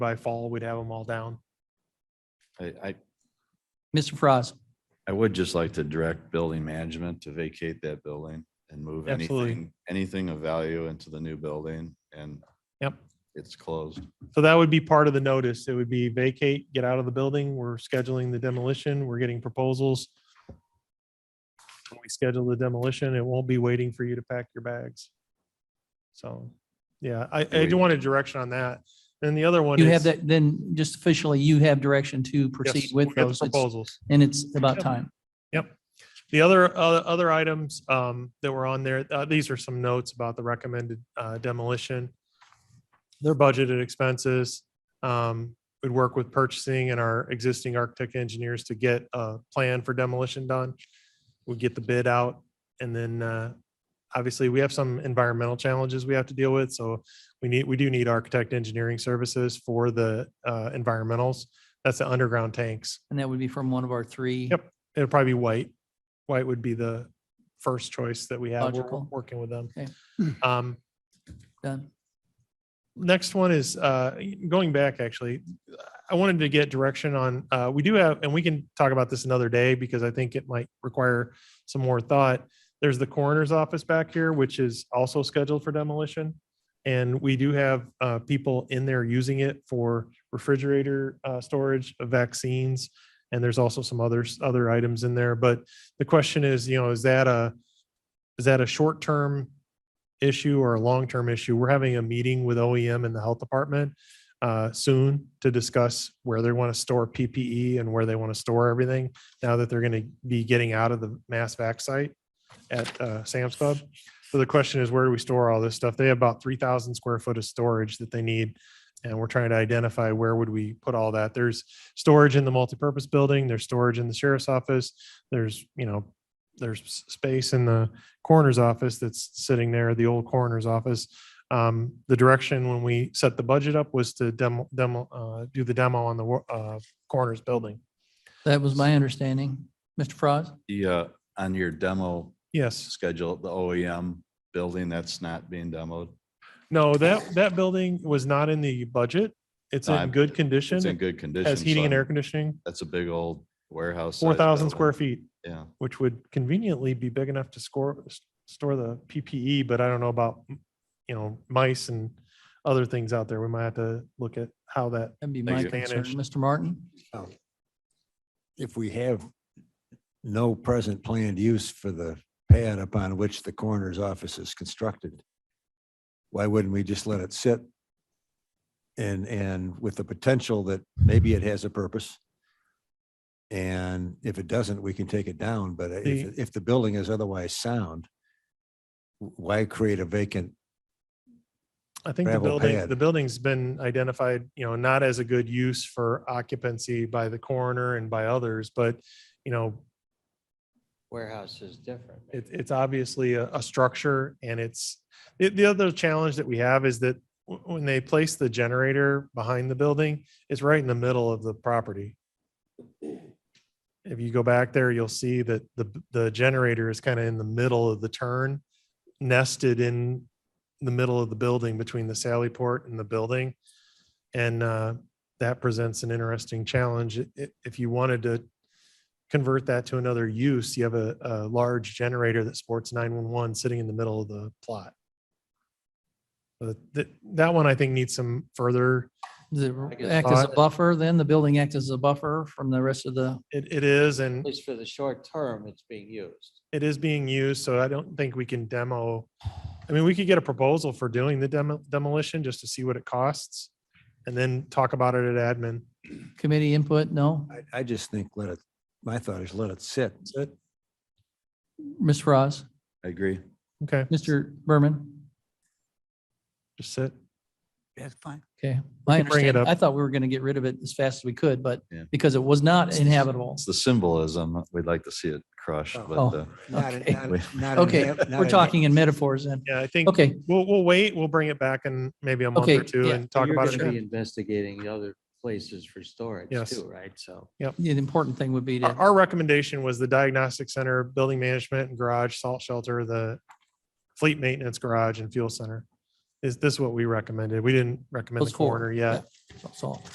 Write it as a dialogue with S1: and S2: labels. S1: by fall, we'd have them all down.
S2: I, I,
S3: Mr. Frost,
S2: I would just like to direct building management to vacate that building and move
S1: Absolutely.
S2: anything, anything of value into the new building and
S1: Yep.
S2: it's closed.
S1: So that would be part of the notice. It would be vacate, get out of the building. We're scheduling the demolition. We're getting proposals. When we schedule the demolition, it won't be waiting for you to pack your bags. So, yeah, I, I do want a direction on that. And the other one
S3: you have
S1: is.
S3: that, then just officially, you have direction to proceed
S1: yes,
S3: with
S1: we got the
S3: those. It's-
S1: Proposals.
S3: And it's about
S1: Yep.
S3: time.
S1: The other, other, other items um, that were on there, uh, these are some notes about the recommended uh, demolition. Their budgeted expenses. Um, We'd work with purchasing and our existing architect engineers to get a plan for demolition done. We'd get the bid out and then uh, obviously we have some environmental challenges we have to deal with. So we need, we do need architect engineering services for the uh, environmentals. That's the underground tanks.
S3: And that would be from one of our three.
S1: Yep. It'd probably be white. White would be the first choice that we have. We're
S3: Logical.
S1: working with them.
S3: Okay.
S1: Um,
S3: Done.
S1: next one is, uh, going back, actually, I wanted to get direction on, uh, we do have, and we can talk about this another day because I think it might require some more thought. There's the coroner's office back here, which is also scheduled for demolition. And we do have, uh, people in there using it for refrigerator, uh, storage of vaccines. And there's also some others, other items in there. But the question is, you know, is that a, is that a short-term issue or a long-term issue. We're having a meeting with OEM and the health department uh, soon to discuss where they want to store PPE and where they want to store everything now that they're going to be getting out of the mass vac site at uh, Sam's Club. So the question is, where do we store all this stuff? They have about 3,000 square foot of storage that they need. And we're trying to identify where would we put all that. There's storage in the multipurpose building, there's storage in the sheriff's office, there's, you know, there's s- space in the coroner's office that's sitting there, the old coroner's office. Um, the direction when we set the budget up was to demo, demo, uh, do the demo on the, wo- uh, coroner's building.
S3: That was my understanding. Mr. Frost,
S2: The, uh, on your demo
S1: Yes.
S2: schedule, the OEM building, that's not being demoed.
S1: No, that, that building was not in the budget. It's
S2: No,
S1: in
S2: I'm-
S1: good condition.
S2: It's in
S1: It
S2: good condition.
S1: Has heating
S2: so
S1: and air
S2: I'm-
S1: conditioning,
S2: That's a big old warehouse.
S1: four thousand square
S2: feet.
S1: feet,
S2: Yeah,
S1: which would conveniently be big enough to score, s- store the PPE, but I don't know about, you know, mice and other things out there. We might have to look at how that,
S3: that'd be
S2: Thank
S3: my
S2: you.
S3: concern.
S1: Managed.
S3: Mr. Martin?
S4: if we have no present planned use for the pad upon which the coroner's office is constructed, why wouldn't we just let it sit? And, and with the potential that maybe it has a purpose. And if it doesn't, we can take it down, but if,
S1: The-
S4: if the building is otherwise sound, w- why create a vacant?
S1: I think the
S4: Gravel
S1: building,
S4: pad.
S1: the building's been identified, you know, not as a good use for occupancy by the coroner and by others, but, you know,
S5: Warehouse is different.
S1: It, it's obviously a, a structure and it's, the, the other challenge that we have is that w- when they place the generator behind the building, it's right in the middle of the property. If you go back there, you'll see that the, the generator is kind of in the middle of the turn, nested in the middle of the building between the Sally Port and the building. And, uh, that presents an interesting challenge. I- i- If you wanted to convert that to another use, you have a, a large generator that sports nine-one-one sitting in the middle of the plot. But that, that one I think needs some further,
S3: Does it
S5: I guess-
S3: act as a
S1: Uh,
S3: buffer then? The building acts as a buffer from the rest of the,
S1: it, it is, and
S5: At least for the short term, it's being used.
S1: it is being used, so I don't think we can demo. I mean, we could get a proposal for doing the demo, demolition just to see what it costs and then talk about it at admin.
S3: committee input? No?
S4: I, I just think let it, my thought is let it sit.
S1: That's it.
S3: Ms. Frost,
S2: I agree.
S1: Okay,
S3: Mr. Berman?
S1: just sit.
S4: That's fine.
S3: Okay. My
S1: can bring it
S3: understanding,
S1: up.
S3: I thought we were going to get rid of it as fast as we could, but
S2: Yeah.
S3: because it was not inhabitable.
S2: It's the symbolism. We'd like to see it crushed,
S4: Oh.
S2: but, uh,
S4: Not
S3: Okay.
S4: in- not in- not in
S3: Okay,
S4: hab- not
S3: we're
S4: in-
S3: talking in metaphors then.
S1: Yeah, I think,
S3: Okay,
S1: we'll, we'll wait, we'll bring it back in maybe a month
S3: Okay,
S1: or two
S3: yeah.
S1: and
S5: So
S1: talk
S5: you're
S1: about it.
S5: gonna
S1: again.
S5: Be investigating other places for storage
S1: Yes.
S5: too, right? So.
S3: the important thing would be
S1: Our,
S3: to,
S1: our recommendation was the diagnostic center, building management and garage, salt shelter, the fleet maintenance garage and fuel center. is this what we recommended? We didn't recommend the
S3: Those four,
S1: coroner yet.
S3: That's all.